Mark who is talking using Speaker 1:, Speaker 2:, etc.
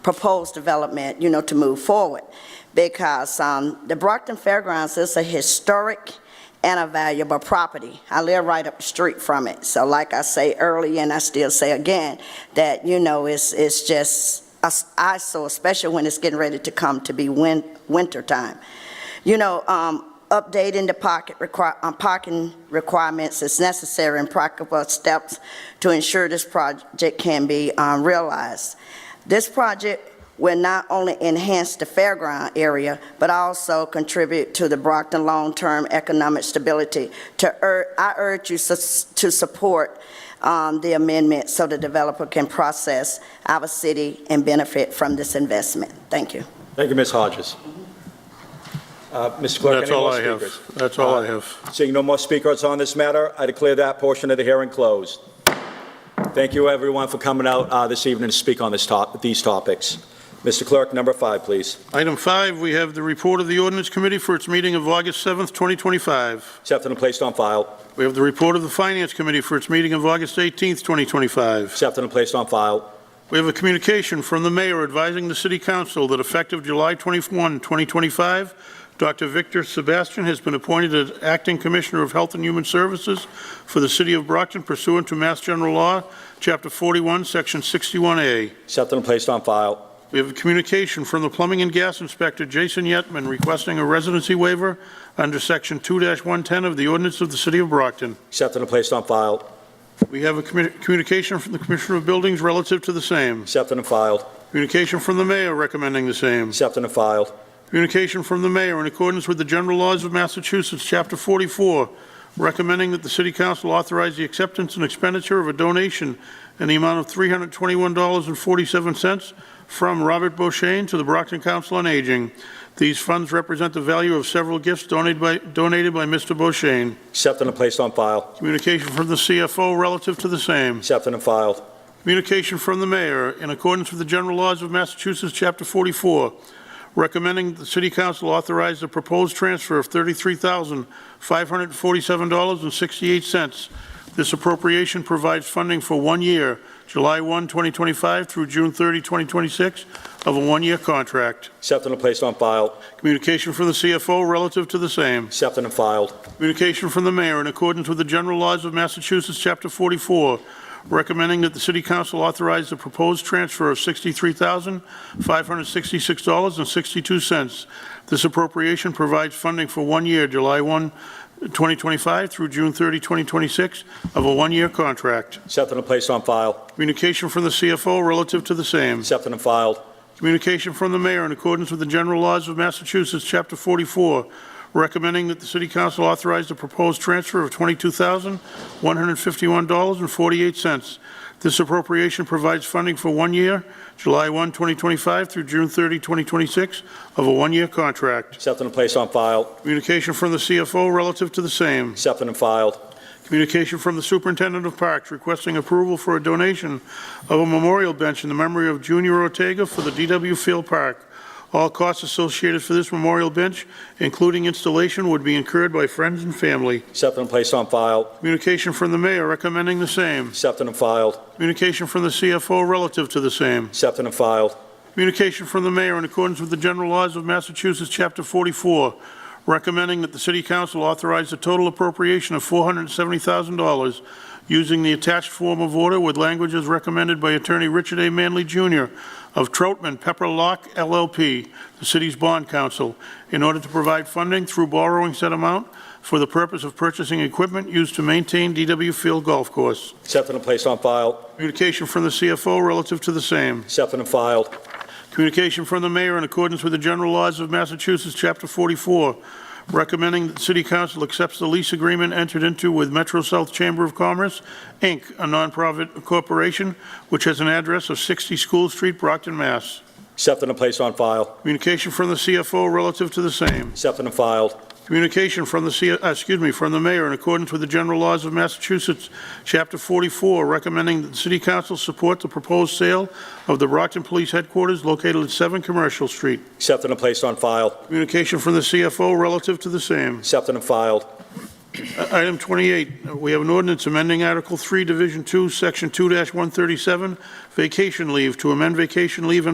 Speaker 1: proposed development, you know, to move forward. Because um, the Brockton Fairgrounds is a historic and a valuable property. I live right up the street from it. So like I say early, and I still say again, that, you know, it's, it's just a s- eyesore, especially when it's getting ready to come to be win, winter time. You know, um, updating the pocket require, um, parking requirements is necessary and practical steps to ensure this project can be, um, realized. This project will not only enhance the fairground area, but also contribute to the Brockton long-term economic stability. To ur, I urge you sus- to support, um, the amendment so the developer can process our city and benefit from this investment. Thank you.
Speaker 2: Thank you, Ms. Hodges. Uh, Mr. Clerk, any
Speaker 3: That's all
Speaker 2: more
Speaker 3: I have.
Speaker 2: speakers? Uh,
Speaker 3: That's all I have.
Speaker 2: Seeing no more speakers on this matter, I declare that portion of the hearing closed. Thank you, everyone, for coming out uh, this evening to speak on this top, these topics. Mr. Clerk, number five, please.
Speaker 3: Item five, we have the report of the ordinance committee for its meeting of August 7th, 2025.
Speaker 2: Accepted and placed on file.
Speaker 3: We have the report of the finance committee for its meeting of August 18th, 2025.
Speaker 2: Accepted and placed on file.
Speaker 3: We have a communication from the mayor advising the city council that effective July 21, 2025, Dr. Victor Sebastian has been appointed as acting commissioner of health and human services for the city of Brockton pursuant to Mass General Law, Chapter 41, Section 61A.
Speaker 2: Accepted and placed on file.
Speaker 3: We have a communication from the plumbing and gas inspector, Jason Yetman, requesting a residency waiver under Section 2-110 of the ordinance of the City of Brockton.
Speaker 2: Accepted and placed on file.
Speaker 3: We have a commu- communication from the Commissioner of Buildings relative to the same.
Speaker 2: Accepted and filed.
Speaker 3: Communication from the mayor recommending the same.
Speaker 2: Accepted and filed.
Speaker 3: Communication from the mayor in accordance with the general laws of Massachusetts, Chapter 44, recommending that the city council authorize the acceptance and expenditure of a donation in the amount of $321.47 from Robert Boshain to the Brockton Council on Aging. These funds represent the value of several gifts donated by, donated by Mr. Boshain.
Speaker 2: Accepted and placed on file.
Speaker 3: Communication from the CFO relative to the same.
Speaker 2: Accepted and filed.
Speaker 3: Communication from the mayor, in accordance with the general laws of Massachusetts, Chapter 44, recommending the city council authorize the proposed transfer of $33,547.68. This appropriation provides funding for one year, July 1, 2025 through June 30, 2026, of a one-year contract.
Speaker 2: Accepted and placed on file.
Speaker 3: Communication from the CFO relative to the same.
Speaker 2: Accepted and filed.
Speaker 3: Communication from the mayor in accordance with the general laws of Massachusetts, Chapter 44, recommending that the city council authorize the proposed transfer of $63,566.62. This appropriation provides funding for one year, July 1, 2025 through June 30, 2026, of a one-year contract.
Speaker 2: Accepted and placed on file.
Speaker 3: Communication from the CFO relative to the same.
Speaker 2: Accepted and filed.
Speaker 3: Communication from the mayor in accordance with the general laws of Massachusetts, Chapter 44, recommending that the city council authorize the proposed transfer of $22,151.48. This appropriation provides funding for one year, July 1, 2025 through June 30, 2026, of a one-year contract.
Speaker 2: Accepted and placed on file.
Speaker 3: Communication from the CFO relative to the same.
Speaker 2: Accepted and filed.
Speaker 3: Communication from the Superintendent of Parks requesting approval for a donation of a memorial bench in the memory of Junior Ortega for the DW Field Park. All costs associated for this memorial bench, including installation, would be incurred by friends and family.
Speaker 2: Accepted and placed on file.
Speaker 3: Communication from the mayor recommending the same.
Speaker 2: Accepted and filed.
Speaker 3: Communication from the CFO relative to the same.
Speaker 2: Accepted and filed.
Speaker 3: Communication from the mayor in accordance with the general laws of Massachusetts, Chapter 44, recommending that the city council authorize a total appropriation of $470,000 using the attached form of order with language as recommended by Attorney Richard A. Manley Jr. of Troutman Pepper Locke LLP, the city's bond counsel, in order to provide funding through borrowing said amount for the purpose of purchasing equipment used to maintain DW Field Golf Course.
Speaker 2: Accepted and placed on file.
Speaker 3: Communication from the CFO relative to the same.
Speaker 2: Accepted and filed.
Speaker 3: Communication from the mayor in accordance with the general laws of Massachusetts, Chapter 44, recommending that the city council accepts the lease agreement entered into with Metro South Chamber of Commerce, Inc., a nonprofit corporation which has an address of 60 School Street, Brockton, Mass.
Speaker 2: Accepted and placed on file.
Speaker 3: Communication from the CFO relative to the same.
Speaker 2: Accepted and filed.
Speaker 3: Communication from the, C- uh, excuse me, from the mayor in accordance with the general laws of Massachusetts, Chapter 44, recommending that the city council support the proposed sale of the Brockton Police Headquarters located at 7 Commercial Street.
Speaker 2: Accepted and placed on file.
Speaker 3: Communication from the CFO relative to the same.
Speaker 2: Accepted and filed.
Speaker 3: I- Item 28, we have an ordinance amending Article 3, Division 2, Section 2-137, vacation leave, to amend vacation leave and